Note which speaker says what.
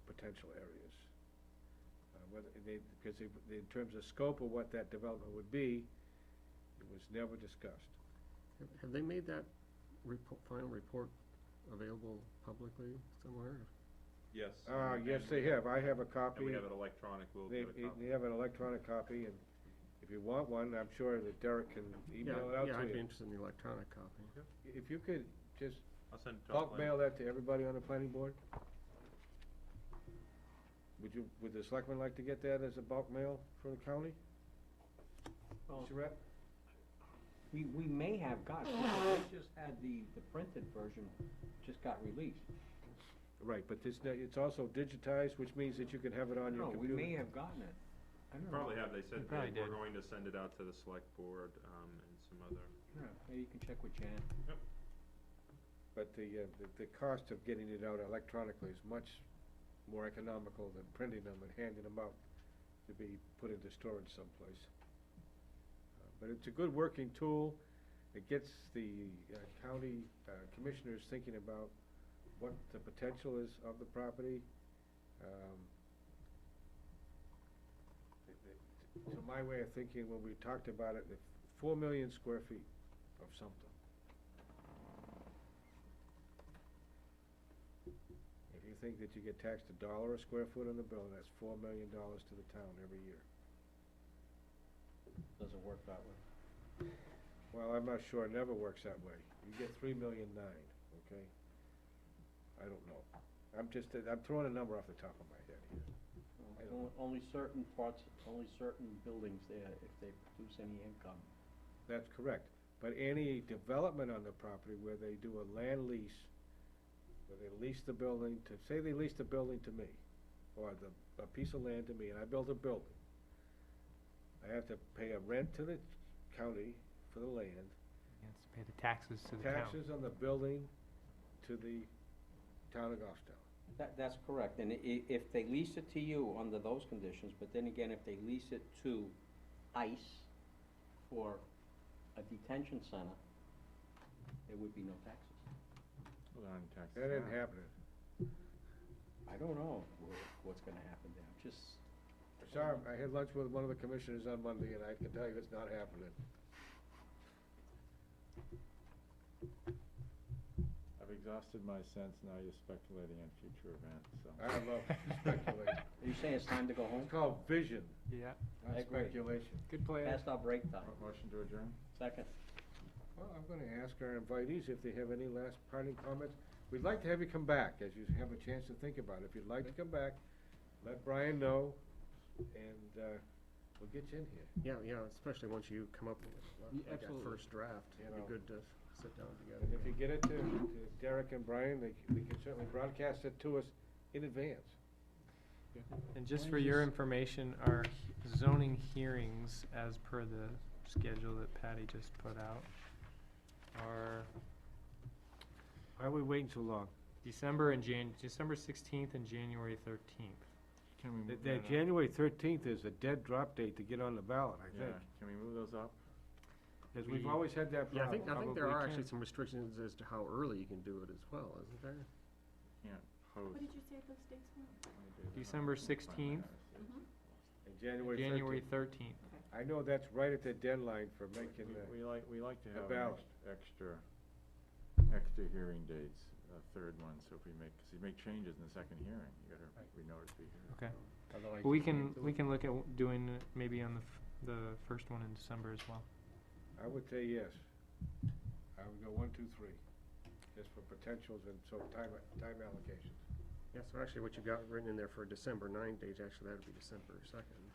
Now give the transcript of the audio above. Speaker 1: potential areas. Uh, Whether, they, because they, they- in terms of scope of what that development would be, it was never discussed.
Speaker 2: Have- Have they made that repo final report available publicly somewhere?
Speaker 3: Yes.
Speaker 1: Uh,
Speaker 3: and-
Speaker 1: yes,
Speaker 3: and-
Speaker 1: they have, I have a
Speaker 3: And
Speaker 1: copy.
Speaker 3: we have it electronic, we'll
Speaker 1: They,
Speaker 3: get a copy.
Speaker 1: they have an electronic copy, and if you want one, I'm sure that Derek can
Speaker 2: Yeah,
Speaker 1: email it out
Speaker 2: Yeah, I'd
Speaker 1: to
Speaker 2: be
Speaker 1: you.
Speaker 2: interested in the electronic copy.
Speaker 1: If you could just
Speaker 3: I'll send it to
Speaker 1: bulk
Speaker 3: Lynn.
Speaker 1: mail that to everybody on the planning board? Would you, would the selectmen like to get that as a bulk mail from the county?
Speaker 4: Well,
Speaker 1: Mr. Rep?
Speaker 4: we, we may have got, because they just had the, the printed version just got released.
Speaker 1: Right, but this, it's also digitized, which means that you can have it on your
Speaker 4: No, we
Speaker 1: computer.
Speaker 4: may have gotten it. I don't know.
Speaker 3: Probably have, they said
Speaker 5: probably
Speaker 3: they were
Speaker 5: did.
Speaker 3: going to send it out to the select board, um, and some other,
Speaker 4: Yeah, Maybe you can check with Janet.
Speaker 1: But the, uh, the- the cost of getting it out electronically is much more economical than printing them and handing them out to be put into storage someplace. Uh, But it's a good working tool. It gets the uh, county uh, commissioners thinking about what the potential is of the property. Um, it- it- To my way of thinking, when we talked about it, the four million square feet of something. If you think that you get taxed a dollar a square foot on the building, that's four million dollars to the town every year.
Speaker 4: Doesn't work that way.
Speaker 1: Well, I'm not sure, it never works that way. You get three million nine, okay? I don't know. I'm just, I'm throwing a number off the top of my head here. I don't-
Speaker 4: Only- Only certain parts, only certain buildings there, if they produce any income.
Speaker 1: That's correct. But any development on the property where they do a land lease, where they lease the building to, say they lease the building to me, or the, a piece of land to me, and I build a building. I have to pay a rent to the county for the land,
Speaker 5: He has to pay the taxes to the town.
Speaker 1: taxes on the building to the town of Goffstown.
Speaker 4: That, that's correct, and i- if they lease it to you under those conditions, but then again, if they lease it to ICE or a detention center, there would be no taxes.
Speaker 3: Well, they're on tax.
Speaker 1: That ain't happening.
Speaker 4: I don't know wh- what's gonna happen there, I'm just,
Speaker 1: Sorry, I had lunch with one of the commissioners on Monday, and I can tell you it's not happening.
Speaker 6: I've exhausted my sense, now you're speculating on future events, so.
Speaker 1: I love speculation.
Speaker 4: are you saying it's time to go home?
Speaker 1: It's called vision,
Speaker 5: Yeah,
Speaker 1: not
Speaker 4: I agree.
Speaker 1: speculation.
Speaker 5: good plan.
Speaker 4: Past our break time,
Speaker 6: Mo- Motion to adjourn?
Speaker 4: second.
Speaker 1: Well, I'm gonna ask our invitees if they have any last parting comments. We'd like to have you come back, as you have a chance to think about it. If you'd like to come back, let Brian know, and, uh, we'll get you in here.
Speaker 2: Yeah, yeah, especially once you come up with uh,
Speaker 5: Yeah,
Speaker 2: like that
Speaker 5: absolutely.
Speaker 2: first draft.
Speaker 1: You
Speaker 2: It'd
Speaker 1: know.
Speaker 2: be good to sit down together.
Speaker 1: And if you get it to- to Derek and Brian, they, c- they can certainly broadcast it to us in advance.
Speaker 5: And just
Speaker 6: Why
Speaker 5: for
Speaker 6: don't you
Speaker 5: your
Speaker 6: s-
Speaker 5: information, our he- zoning hearings, as per the schedule that Patty just put out, are
Speaker 1: Why are we waiting so long?
Speaker 5: December and Jan, December sixteenth and January thirteenth.
Speaker 6: Can we
Speaker 1: The,
Speaker 6: move
Speaker 1: the
Speaker 6: that up?
Speaker 1: January thirteenth is a dead drop date to get on the ballot, I
Speaker 6: Yeah,
Speaker 1: think.
Speaker 6: can we move those up?
Speaker 1: Because we've
Speaker 5: We-
Speaker 1: always had that
Speaker 2: Yeah,
Speaker 1: problem.
Speaker 2: I think, I think there
Speaker 5: Probably
Speaker 2: are actually
Speaker 5: can.
Speaker 2: some restrictions as to how early you can do it as well, isn't there?
Speaker 6: Can't post.
Speaker 7: What did you say those dates were?
Speaker 5: December 16th.
Speaker 1: And January
Speaker 5: January
Speaker 1: thirteenth.
Speaker 5: thirteenth.
Speaker 1: I know that's right at the deadline for making the.
Speaker 6: We like, we like to
Speaker 1: a
Speaker 6: have an
Speaker 1: ballot.
Speaker 6: ex- extra, extra hearing dates, a third one, so if we make, because you make changes in the second hearing, you gotta, we know to be here.
Speaker 5: Okay.
Speaker 2: Although I
Speaker 5: We
Speaker 2: think
Speaker 5: can, we can look at w- doing it maybe on the, f- the first one in December as well.
Speaker 1: I would say yes. I would go one, two, three, just for potentials and so time, time allocations.
Speaker 2: Yeah, so actually what you got written in there for December nine date, actually that'd be December second.